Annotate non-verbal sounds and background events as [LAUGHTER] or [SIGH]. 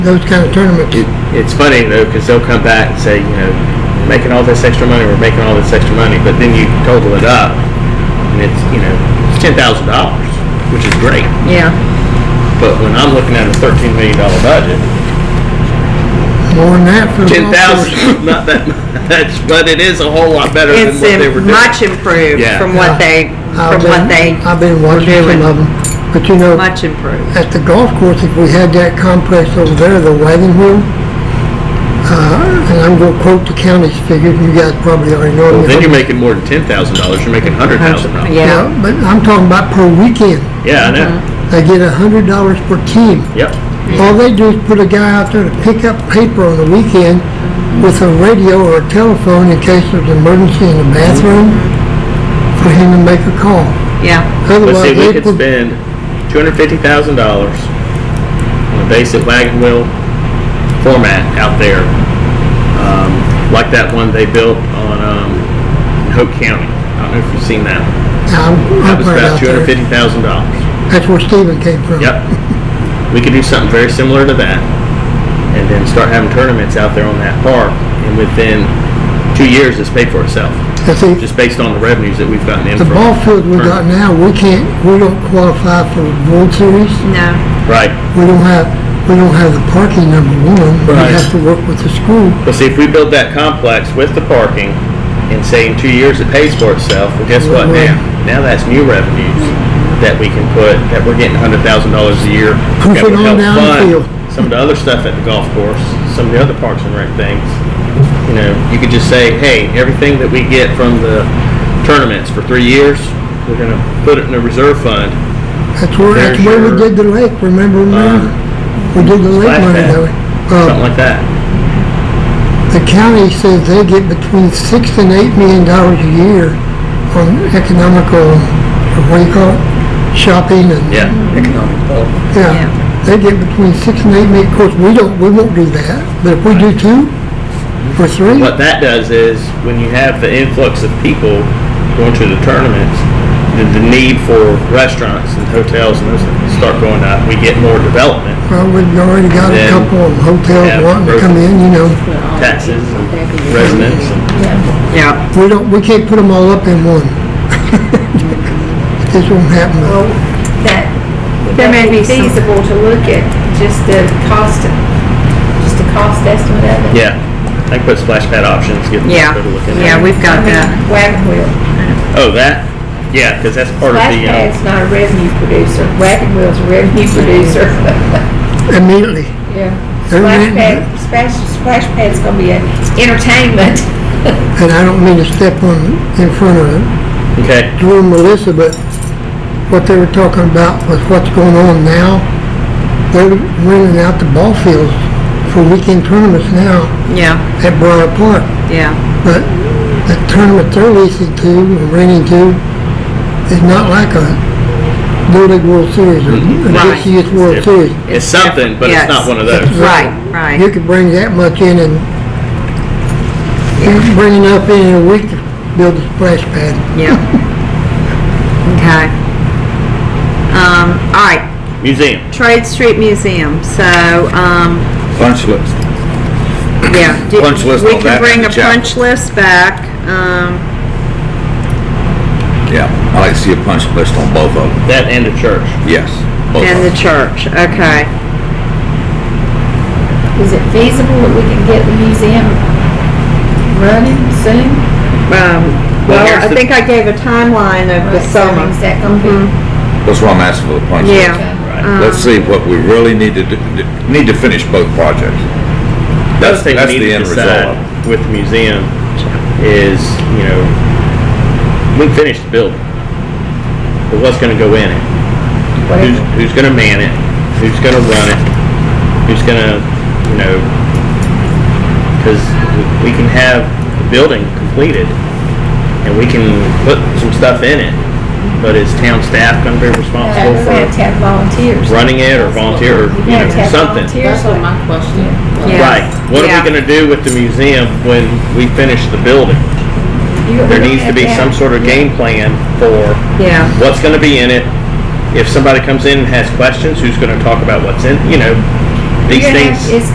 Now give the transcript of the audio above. those kind of tournaments. It's funny though, because they'll come back and say, you know, we're making all this extra money, we're making all this extra money, but then you total it up, and it's you know, it's ten thousand dollars, which is great. Yeah, But when I'm looking at a thirteen million dollar budget, More than that for the ten Mm-hmm. golf thousand, course. [LAUGHS] not that much, but it is a whole lot better than it's what they were im- doing. much improved Yeah. from what Yeah. they, I've from what been- they, I've been watching doing. some of them, but you know, much improved. at the golf course, if we had that complex over there, the wagon wheel, uh, and I'm gonna quote the county's figures, you guys probably already know. Well, them. then you're making more than ten thousand dollars. You're making hundred thousand dollars. Yeah, Yeah, but I'm talking about per weekend, Yeah, I know. Mm-hmm. they get a hundred dollars per team. Yep. All they do is put a guy out there to pick up paper on the weekend with a radio or a telephone in case there's an emergency in the bathroom for him to make a call. yeah, But Otherwise, see, we they could put- spend two hundred fifty thousand dollars on a basic wagon wheel format out there, um, like that one they built on um, in Hope County. I don't know if you've seen that. one. I'm, I'm That was right out about two hundred there. fifty thousand dollars. That's where Stephen came from. Yep. We could do something very similar to that, and then start having tournaments out there on that park, and within two years, it's paid for itself, I see, just based on the revenues that we've gotten in the from. ball field we got now, we can't, we don't qualify for the World Series. no, Right. We don't have, we don't have the parking, number one. We Right. have to work with the school. But see, if we build that complex with the parking and say in two years it pays for itself, well, guess what now? Now that's new revenues that we can put, that we're getting hundred thousand dollars a year. Push that it would on help down the fund field. Some of the other stuff at the golf course, some of the other parks and rec things. You know, you could just say, hey, everything that we get from the tournaments for three years, we're gonna put it in a reserve fund. That's where, that's There's where we your, did the lake, remember, um, man? We did the lake splash money pad. that way. Uh, Something like that. The county says they get between six and eight million dollars a year on economical, or what do you call it, shopping and, Yeah. economic development. yeah. Yeah. They get between six and eight million, of course, we don't, we won't do that, but if we do two or three, What that does is when you have the influx of people going to the tournaments, the, the need for restaurants and hotels and those things start going up. We get more development well, we've already got a Then couple of hotels have wanting to growth. come in, you know. taxes and residents. And, yeah. We don't, we can't put them all up in one. [LAUGHS] This won't happen. Well, that, would There that may be be some- feasible to look at just the cost, just the cost estimate of it? yeah, I can put splash pad options. Get Yeah, people to look at yeah, that. we've got that. Wagon wheel. Oh, that. Yeah, because that's part of Splash the. pad's Um, not a revenue producer. Wagon wheel's a revenue [LAUGHS] producer. Immediately. Yeah. They're Splash renting pad, splash, splash pad's gonna be an [LAUGHS] entertainment. And I don't mean to step on, in front of okay. Drew and Melissa, but what they were talking about was what's going on now. They're renting out the ball fields for weekend tournaments now Yeah, at Briar Park. yeah, But the tournament they're leasing to and renting to is not like a Little League World Series or a Right. DCS World Series. It's something, but Yes. it's not one of those. right, You right, could bring that much in and you could bring enough in in a week to build a splash pad. yeah. Okay. Um, all right, Museum. Trade Street Museum, so, um, Punch list. yeah. do- Punch list on that We and can bring the a chapel. punch list back, um, Yeah, I like to see a punch list on both of them. That and the church. Yes. both and of the them. church, okay. Is it feasible that we can get the museum running soon? Um, Well, well, here's I the- think I gave a timeline of the Right, so summer. Is that gonna Mm-hmm. be? That's why I'm asking for the punch list. Yeah. Right. Um, Let's see what we really need to, do- do- need to finish both projects. That's, That's thing that's we need the to end decide result. of it. with the museum is, you know, we finished the building, but what's going to go in it? Who's, who's going to man it? Who's going to run it? Who's going to, you know, because we can have the building completed and we can put some stuff in it, but is town staff going to be responsible We're gonna have for to have volunteers. running it or volunteer or, you We're gonna have to know, have something? volunteers. Yes. Right. What are Yeah. we gonna do with the museum when we finish the building? You- There we're needs to gonna be have some sort of game plan for Yeah, what's gonna be in it. If somebody comes in and has questions, who's gonna talk about what's in, you know, These You're gonna have- things- It's